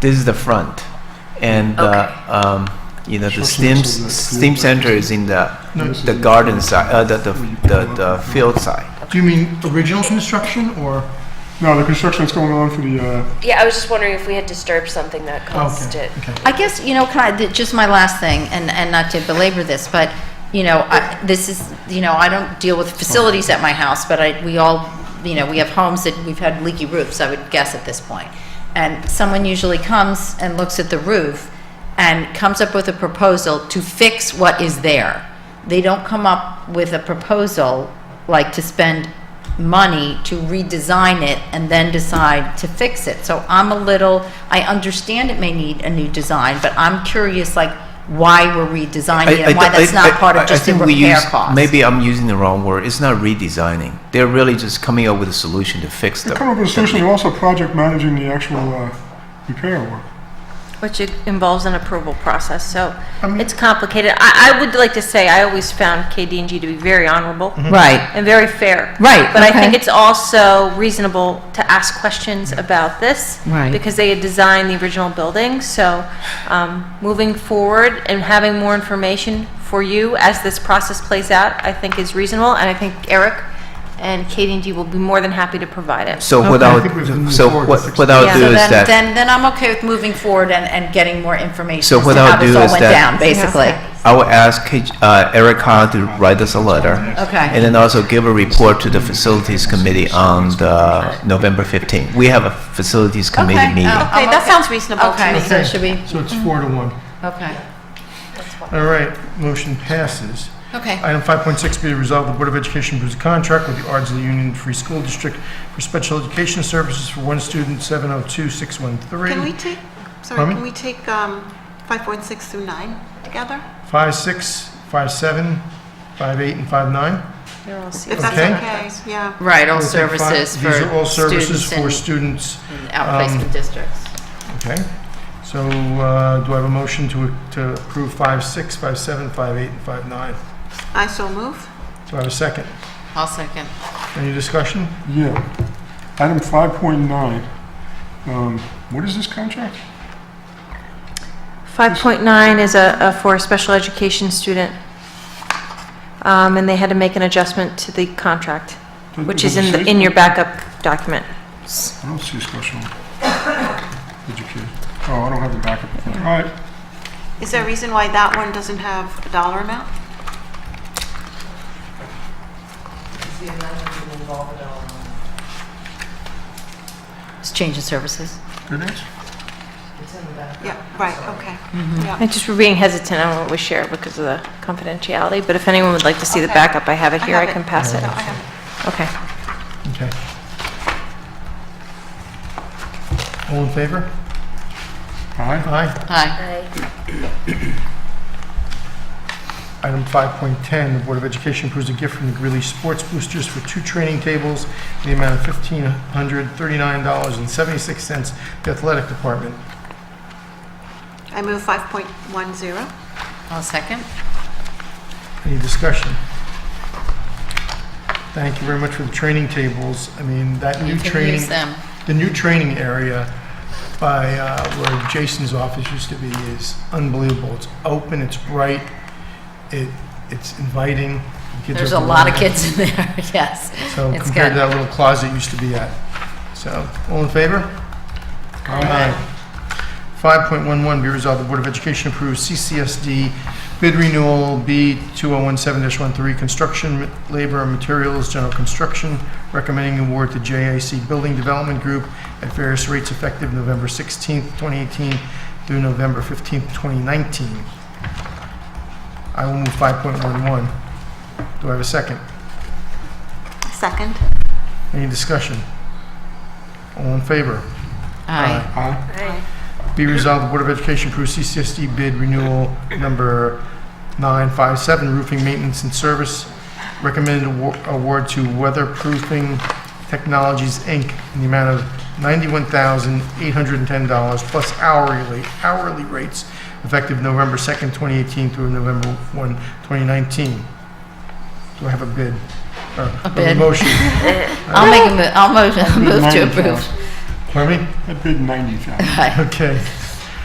This is the front, and Okay. uh, um, you know the Short STEM circles of the STEM field. center is in the No, this the is- garden side, uh, the, the Where you the pull the up. field side. Do you mean original construction or? No, the construction that's going on for the, uh, Yeah, I was just wondering if we had disturbed something that caused Okay, it. okay. I guess, you know, kind of, just my last thing, and, and not to belabor this, but, you know, I, this is, you know, I don't deal with facilities at my house, but I, we all, you know, we have homes that we've had leaky roofs, I would guess at this point. And someone usually comes and looks at the roof and comes up with a proposal to fix what is there. They don't come up with a proposal like to spend money to redesign it and then decide to fix it. So I'm a little, I understand it may need a new design, but I'm curious, like, why we're redesigning it and why I- that's I- not part I- I of just the think we repair use- cost. Maybe I'm using the wrong word. It's not redesigning. They're really just coming up with a solution to fix they're the. coming up with a solution, they're also project managing the actual, uh, repair work. Which it involves an approval process, so mean- it's complicated. I, I would like to say, I always found KDNG to be very honorable Mm-hmm. Right, and very fair. Right, But I think okay. it's also reasonable to ask questions about this. Right. Because they had designed the original building, so um, moving forward and having more information for you as this process plays out, I think is reasonable, and I think Eric and KDNG will be more than happy to provide it. So what Okay. I I'll think we have to move so forward what, to fix what it. I'll Yeah. do so is then, that then, then I'm okay with moving forward and, and getting more information So as what to I'll how this do all is went that- down, basically. I will ask K- uh, Eric Hahn to write us a letter. Okay. And then also give a report to the facilities committee on the November 15th. We have a facilities committee Okay. meeting. Oh, Okay, I'm that sounds reasonable to Okay, me. so should we, So it's four to one. okay. All right, motion passes. Okay. Item 5.6 be resolved, the Board of Education approves a contract with the Ardsley Union Free School District for special education services for one student, 702613. Can we take, sorry, Pardon me? can we take um, 5.6 through 9 together? 5.6, 5.7, 5.8, and 5.9? They're all seated. If that's Okay. okay, yeah. Right, all We'll take five- services for These are all services for students students. in um, outplacement districts. Okay, so uh, do I have a motion to to approve 5.6, 5.7, 5.8, and 5.9? I so move. Do I have a second? I'll second. Any discussion? Yeah. Item 5.9, um, what is this contract? 5.9 is a, a- for a special education student, Um, and they had to make an adjustment to the contract, Does- which does is it in, the- say- in your backup document. I don't see a special education. Oh, I don't have the backup. All right, Is there a reason why that one doesn't have a dollar amount? It's change in services. good answer. Yeah, right, okay. I just were being hesitant on what we share because of the confidentiality, but if anyone would like to see the Okay. backup, I have it I here, I have it. can pass it. No, I haven't. Okay. Okay. All in favor? Aye. Aye. Aye. Item 5.10, the Board of Education approves a gift from the Greeley Sports Boosters for two training tables in the amount of $1,539.76 to the athletic department. I move 5.10. I'll second. Any discussion? Thank you very much for the training tables. I mean, that new You can use training, them. the new training area by uh, where Jason's office used to be is unbelievable. It's open, it's bright, it, it's inviting. The kids There's are a lot of delighted. kids in there, yes. So It's compared good. to that little closet it used to be at. So, all in favor? Aye. 5.11, be resolved, the Board of Education approves CCSD bid renewal B2017-13, construction, labor, and materials, general construction, recommending award to JIC Building Development Group at various rates effective November 16th, 2018 through November 15th, 2019. I will move 5.11. Do I have a second? Second. Any discussion? All in favor? Aye. Aye. Be resolved, the Board of Education approves CCSD bid renewal number 957, roofing maintenance and service, recommended awar- award to Weatherproofing Technologies, Inc., in the amount of $91,810 plus hourly, hourly rates effective November 2nd, 2018 through November 1, 2019. Do I have a bid? Or bid. motion? I'll make a, mo- I'll mo- I'll move to Mine, approve. uh, Pardon me? I bid ninety thousand. Hi. Okay.